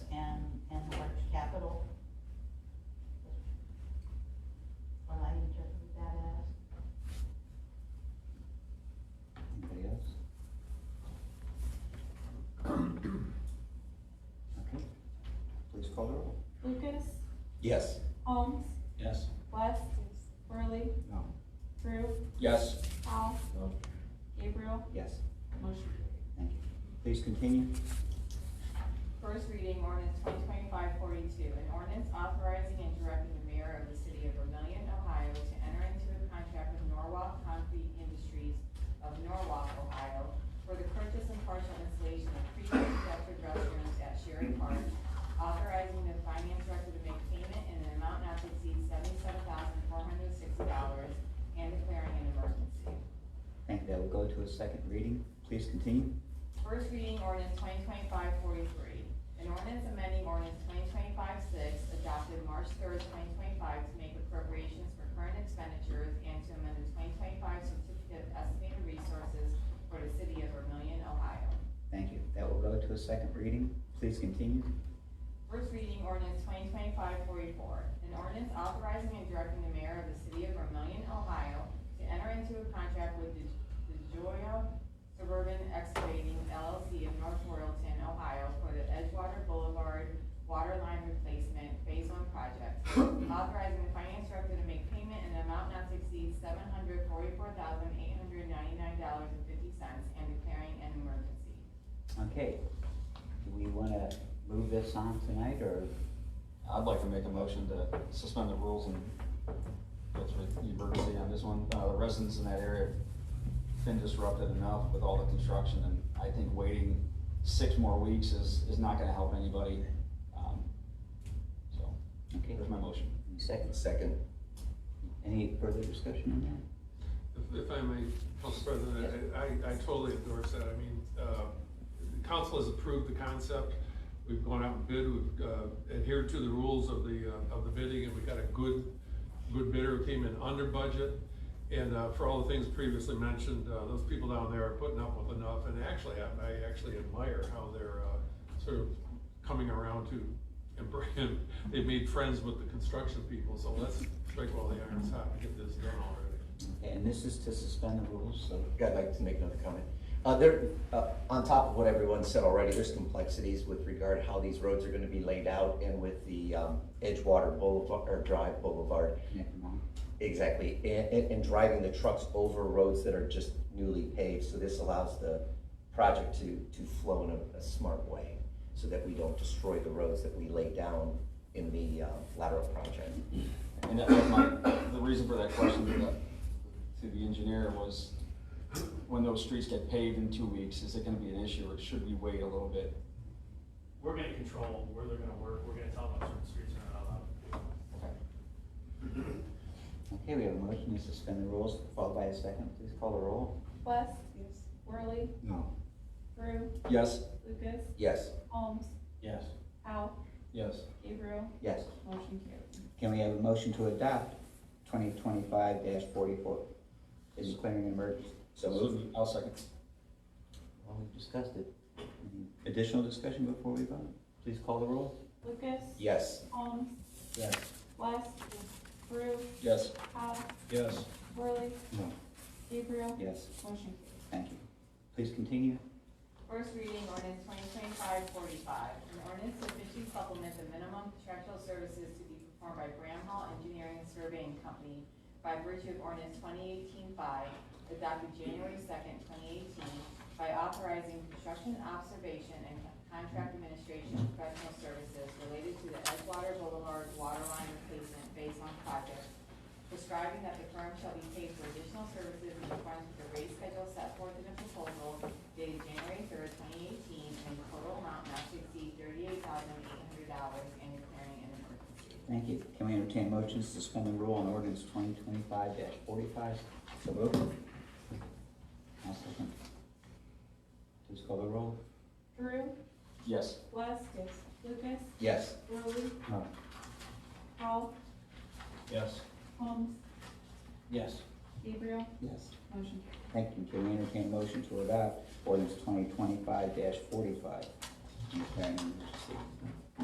call the roll. Lucas, Yes. Holmes, Yes. West, Worley, No. Drew, Yes. Powell, No. Gabriel, Yes. motion carried. Thank you. Please continue. First reading ordinance 2025-42, an ordinance authorizing and directing the mayor of the city of Vermillion, Ohio to enter into a contract with Norwalk Concrete Industries of Norwalk, Ohio for the purchase and partial installation of pre-constructed restrooms at Sherry Park, authorizing the finance director to make payment in an amount not to exceed seventy-seven thousand four hundred sixty dollars and declaring an emergency. Thank you. That will go to a second reading. Please continue. First reading ordinance 2025-43, An ordinance amending ordinance 2025-6, adopted March third, twenty twenty-five, to make appropriations for current expenditures and to amend the twenty twenty-five certificate of estimated resources for the city of Vermillion, Ohio. Thank you. That will go to a second reading. Please continue. First reading ordinance 2025-44, An ordinance authorizing and directing the mayor of the city of Vermillion, Ohio to enter into a contract with the the Joya Suburban Excavating LLC of North Royalton, Ohio for the Edgewater Boulevard Water Line Replacement Phase One Project, authorizing the finance director to make payment in an amount not to exceed seven hundred forty-four thousand eight hundred ninety-nine dollars and fifty cents and declaring an emergency. Okay. Do we want to move this on tonight or? I'd like to make a motion to suspend the rules and go through the emergency on this one. Uh, the residents in that area have been disrupted enough with all the construction, and I think waiting six more weeks is, is not gonna help anybody. Um, So, Okay. there's my motion. Any Second. Second. Any further discussion on that? If- If I may, Council President, I- I, I totally endorse that. I mean, uh, the council has approved the concept. We've gone out and bid, we've uh, adhered to the rules of the, uh, of the bidding, and we got a good, good bidder who came in under budget. And uh, for all the things previously mentioned, uh, those people down there are putting up with enough, and actually, I I actually admire how they're uh, sort of coming around to, and bring- they've made friends with the construction people, so let's strike while the iron's hot and get this done already. Okay, and this is to suspend the rules, so. Yeah, I'd like to make another comment. Uh, there, uh, on top of what everyone said already, there's complexities with regard how these roads are gonna be laid out and with the, um, Edgewater Boulevard, or Drive Boulevard. Never mind. Exactly, and, and, and driving the trucks over roads that are just newly paved, so this allows the project to, to flow in a, a smart way, so that we don't destroy the roads that we lay down in the, um, lateral project. And that was my, the reason for that question to the, to the engineer was, when those streets get paved in two weeks, is it gonna be an issue, or should we wait a little bit? we're gonna control where they're gonna work, we're gonna tell them what certain streets are not allowed. Okay. Okay, we have a motion to suspend the rules, followed by a second. Please call the roll. West. Worley. No. Drew. Yes. Lucas. Yes. Holmes. Yes. Powell. Yes. Gabriel. Yes. Motion carried. Can we have a motion to adopt twenty twenty-five forty-four? Is declaring an emergency. So moved. I'll second. Well, we've discussed it. Any Additional discussion before we vote? Please call the roll. Lucas. Yes. Holmes. Yes. West. Brew. Yes. Powell. Yes. Worley. No. Gabriel. Yes, Motion carried. thank you. Please continue. First reading ordinance 2025-45, an ordinance to officially supplement the minimum contractual services to be performed by Bramhall Engineering Surveying Company by virtue of ordinance 2018-5, adopted January second, twenty eighteen, by authorizing construction observation and contract administration professional services related to the Edgewater Boulevard Waterline Replacement Phase One project prescribing that the firm shall be paid for additional services in accordance with the rate schedule set forth in the proposal dated January third, twenty eighteen, and the total amount not to exceed thirty-eight thousand eight hundred dollars and declaring an emergency. Thank you. Can we entertain motions to suspend the rule on ordinance twenty twenty-five forty-five? So moved. I'll second. Please call the roll. Drew, Yes. West. Lucas. Yes. Worley. No. Powell. Yes. Holmes. Yes. Gabriel. Yes. Motion Thank you. Can we entertain motion to adopt ordinance twenty twenty-five forty-five? Declaring an emergency.